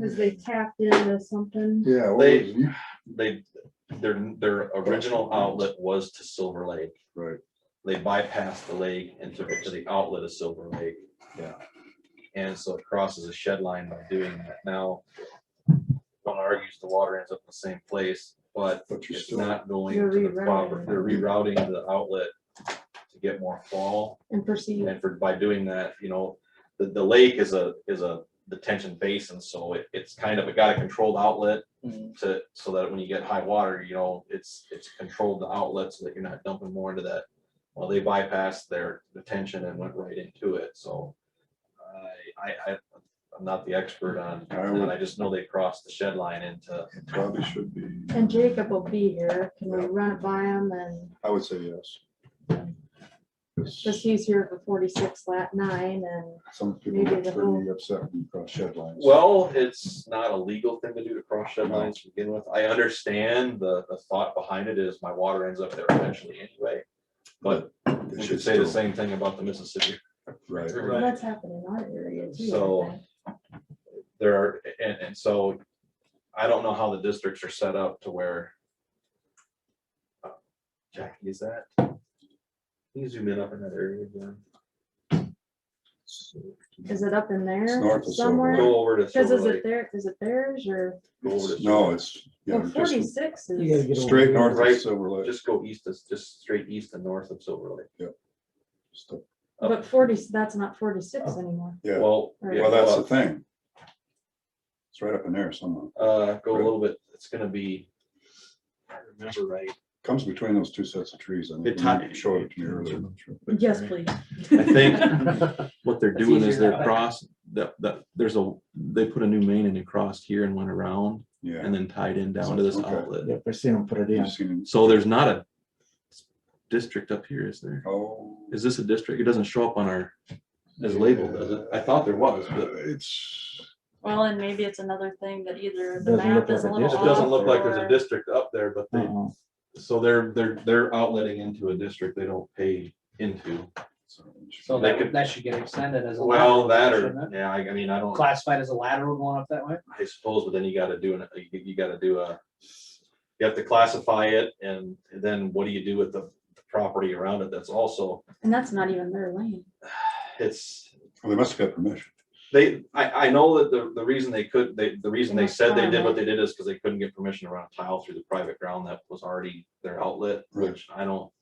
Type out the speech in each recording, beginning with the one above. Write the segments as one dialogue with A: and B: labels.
A: Cause they tapped into something.
B: Yeah. what
C: They-
B: was it?
C: They, their, their original outlet was to Silver Lake.
B: Right,
C: They bypassed the lake and took it to the outlet of Silver Lake.
B: Yeah.
C: And so it crosses a shed line by doing that. Now, one argues the water ends up in the same place, but
B: but you're
C: it's
B: still,
C: not going
A: You're
C: to the
A: rerouting.
C: proper, they're rerouting the outlet to get more fall.
A: And perceived.
C: And for, by doing that, you know, the, the lake is a, is a detention basin, so it, it's kind of, it got a controlled outlet to, so that when you get high water, you know, it's, it's controlled the outlet so that you're not dumping more into that. Well, they bypassed their detention and went right into it, so I, I, I, I'm not the expert on,
B: I
C: that.
B: would-
C: I just know they crossed the shed line into,
B: it probably should be,
A: And Jacob will be here. Can we run it by him and,
B: I would say yes. 'Cause
A: cause he's here for forty-six lat nine and
B: Some people
A: Maybe
B: get
A: the
B: pretty upset when you cross shed lines.
C: well, it's not a legal thing to do to cross shed lines to begin with. I understand the, the thought behind it is my water ends up there eventually anyway. But
B: They
C: we
B: should
C: should say the
B: still-
C: same thing about the Mississippi
B: Right,
C: River.
A: well, that's happening in our area too. I
C: So-
A: think.
C: there are, and, and so I don't know how the districts are set up to where. uh, Jackie, is that? Can you zoom in up in that area again?
A: Is it up in
B: It's
A: there
B: north of Silver
A: somewhere?
B: Lake.
C: Go over to
A: Cause
C: Silver
A: is it
C: Lake.
A: there, is it theirs or,
C: go over to
B: no,
C: Silver-
B: it's, yeah,
A: well,
B: just
A: forty-six
D: You gotta
A: is,
D: get over
B: straight
D: here.
B: north of
C: Right.
B: Silver Lake.
C: Just go east, of- just straight east and north of Silver Lake.
B: Just the-
C: Up-
A: but forty, that's not forty-six
D: Oh.
A: anymore.
B: yeah.
C: Well.
A: Well,
C: yeah,
B: Well, that's the
C: go up,
B: thing. It's right up in there somewhere.
C: Uh, go a little bit, it's gonna be. if I remember right.
B: Comes between those two sets of trees. I
C: It
B: think when
C: ti-
B: you showed it to me earlier.
A: Yes, please.
C: I think what they're
D: That's
C: doing is
D: easier that
C: they're
D: way.
C: cross, that, that, there's a, they put a new main and they crossed here and went around.
B: Yeah.
C: and then tied in down to this
B: Okay.
C: outlet.
D: Yep, I see them put it in.
B: You've seen it.
C: So there's not a district up here, is there?
B: Oh.
C: Is this a district? It doesn't show up on our, as labeled, does it? I thought there was, but
B: Uh, It's,
E: Well, and maybe it's another thing that either
D: It
E: the
D: doesn't
E: map
D: look
E: is a
D: like a
E: little
D: district.
E: off.
C: it doesn't look like there's
E: or-
C: a district up there, but they,
D: Uh-uh.
C: so they're, they're, they're outletting into a district they don't pay into.
F: So
C: They
F: that,
C: could-
F: that should get extended as a.
C: Well,
F: lateral,
C: that or,
F: shouldn't it?
C: yeah, I, I mean, I don't,
F: Classified as a lateral going up that way?
C: I suppose, but then you gotta do, an you you gotta do a, you have to classify it and then what do you do with the the property around it that's also,
A: And that's not even their lane.
C: it's,
B: well, they must have got permission.
C: They, I, I know that the, the reason they could, they, the reason they
A: must
C: said they
A: farm
C: did
A: it.
C: what they did is because they couldn't get permission to run a tile through the private ground that was already their outlet,
B: Right.
C: which I don't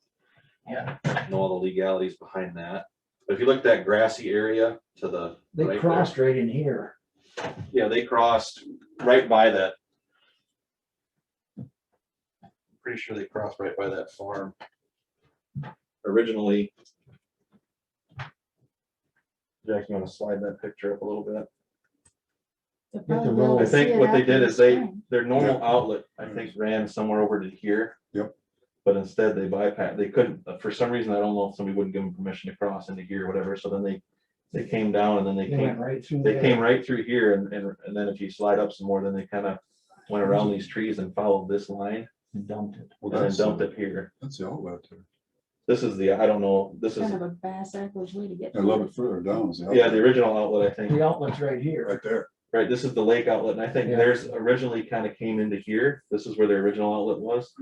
F: Yeah.
C: know all the legalities behind that. But if you look at that grassy area to the. right
D: They
C: there-
D: crossed right in here.
C: Yeah, they crossed right by that. I'm Pretty sure they crossed right by that farm. Originally. Jack, you wanna slide that picture up a little bit?
A: They'll
D: the
A: probably be
D: road.
A: able to
C: I
A: see
C: think
A: it
C: what they
A: after
C: did
A: the
C: is they,
A: spring.
C: their normal
B: Yeah.
C: outlet, I think, ran somewhere over to here.
B: Yep.
C: But instead they bypassed, they couldn't, uh, for some reason, I don't know if somebody wouldn't give them permission to cross into here or whatever, so then they, they came down and then they
D: They went
C: came,
D: right through
C: they came
D: there.
C: right through here and, and, and then if you slide up some more, then they kind of went around these trees and followed this line
D: and Dumped it.
B: Well,
C: and then
B: that's,
C: dumped it here.
B: that's the outlet there.
C: This is the, I don't know, this is,
A: Kind of a bass backwards way to get.
B: A
A: through.
B: little bit further down is the
C: yeah, the
B: outlet,
C: original outlet, I think,
D: The outlet's right here.
B: right there.
C: right, this is the lake outlet, and I think
D: Yeah.
C: theirs originally kind of came into here, this is where their original outlet was.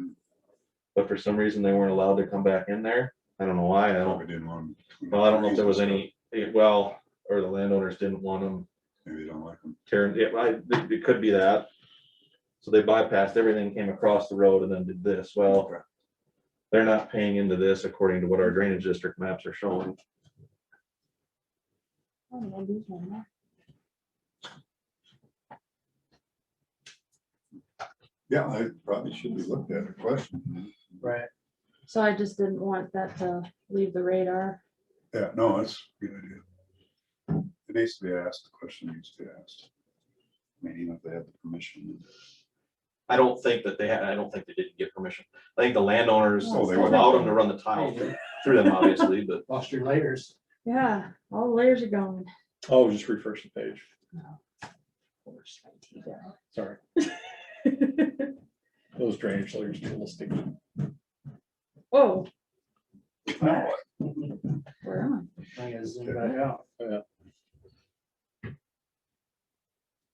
C: But for some reason, they weren't allowed to come back in there, I don't know why, I
B: Probably
C: don't,
B: didn't want. 'em-
C: well, I don't know if there was any, eh, well, or the landowners didn't want them
B: Maybe they don't like them.
C: tearing, it, I, it- it could be that. So they bypassed everything, came across the road and then did this, well,
B: Okay.
C: they're not paying into this according to what our drainage district maps are showing.
A: Oh, yeah, these are not-
B: Yeah, I probably should be looked at, a question.
F: Right.
A: So I just didn't want that to leave the radar.
B: Yeah, no, that's a good idea. It needs to be asked, the question needs to be asked. I mean, even if they have the permission.
C: I don't think that they had, I don't think they didn't get permission, I think the landowners
B: Oh, they wouldn't.
C: allowed them to run the tile through- through them, obviously, but.
F: Lost your layers.
A: Yeah, all the layers are gone. Oh,
G: Oh, just refresh the page, sorry. Those drainage layers still stick.
A: Oh,
B: No,
A: where am
F: I gotta zoom back out.
G: Yeah.